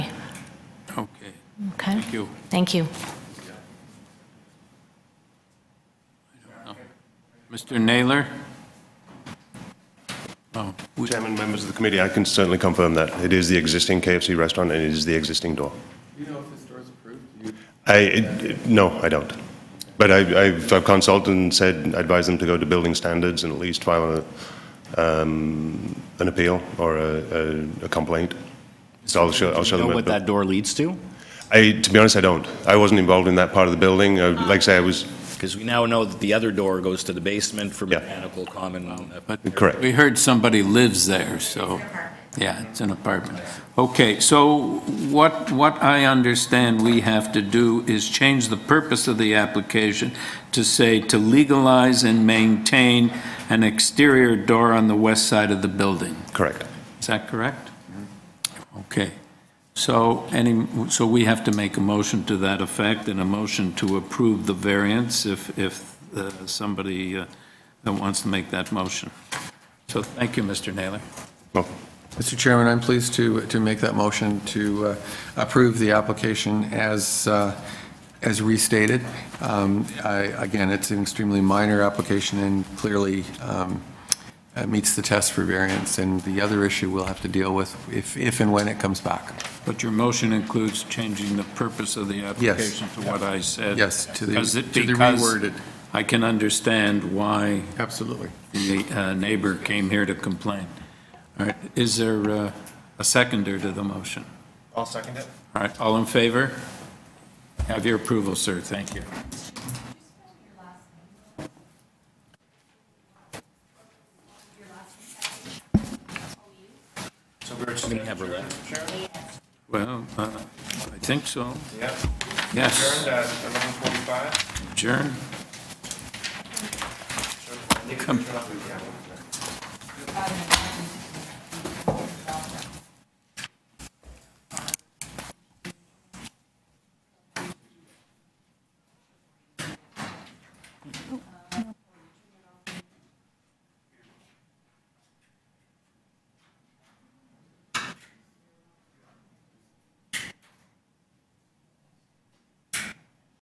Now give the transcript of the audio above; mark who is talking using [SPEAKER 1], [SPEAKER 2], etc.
[SPEAKER 1] Okay. Thank
[SPEAKER 2] you.
[SPEAKER 1] Thank you.
[SPEAKER 2] Mr. Naylor? Oh, we-
[SPEAKER 3] Chairman, members of the committee, I can certainly confirm that. It is the existing KFC restaurant and it is the existing door. Do you know if this door is approved? I, it- it- no, I don't. But I, I've I've consulted and said, advise them to go to building standards and at least file a, um, an appeal or a, a- a complaint. So I'll show, I'll show
[SPEAKER 4] know
[SPEAKER 3] them.
[SPEAKER 4] what that door leads to?
[SPEAKER 3] I, to be honest, I don't. I wasn't involved in that part of the building. I- Like I say, I was,
[SPEAKER 4] Because we now know that the other door goes to the basement for
[SPEAKER 3] Yeah.
[SPEAKER 4] mechanical common. uh,
[SPEAKER 2] but
[SPEAKER 3] Correct.
[SPEAKER 2] We heard somebody lives there, so, yeah, it's an apartment. Okay, so what, what I understand we have to do is change the purpose of the application to say to legalize and maintain an exterior door on the west side of the building.
[SPEAKER 3] correct.
[SPEAKER 2] Is that correct? Okay. So any, so we have to make a motion to that effect and a motion to approve the variance if, if uh, somebody uh, that wants to make that motion. So thank you, Mr. Naylor.
[SPEAKER 3] Well,
[SPEAKER 5] Mr. Chairman, I'm pleased to, to make that motion to uh, approve the application as, uh, as restated. Um, I- Again, it's an extremely minor application and clearly um, uh, meets the test for variance, and the other issue we'll have to deal with if, if and when it comes back.
[SPEAKER 2] But your motion includes changing the purpose of the application to what I said.
[SPEAKER 5] Yes, to the,
[SPEAKER 2] Because it-
[SPEAKER 5] to the
[SPEAKER 2] because
[SPEAKER 5] reworded.
[SPEAKER 2] I can understand why
[SPEAKER 5] Absolutely.
[SPEAKER 2] the uh, neighbor came here to complain. All right, is there uh, a seconder to the motion?
[SPEAKER 3] I'll second it.
[SPEAKER 2] All right, all in favor? Have your approval, sir, thank you. Well, uh, I think so.
[SPEAKER 6] Yep.
[SPEAKER 2] Yes,
[SPEAKER 6] at 11:45.
[SPEAKER 2] adjourn. Come.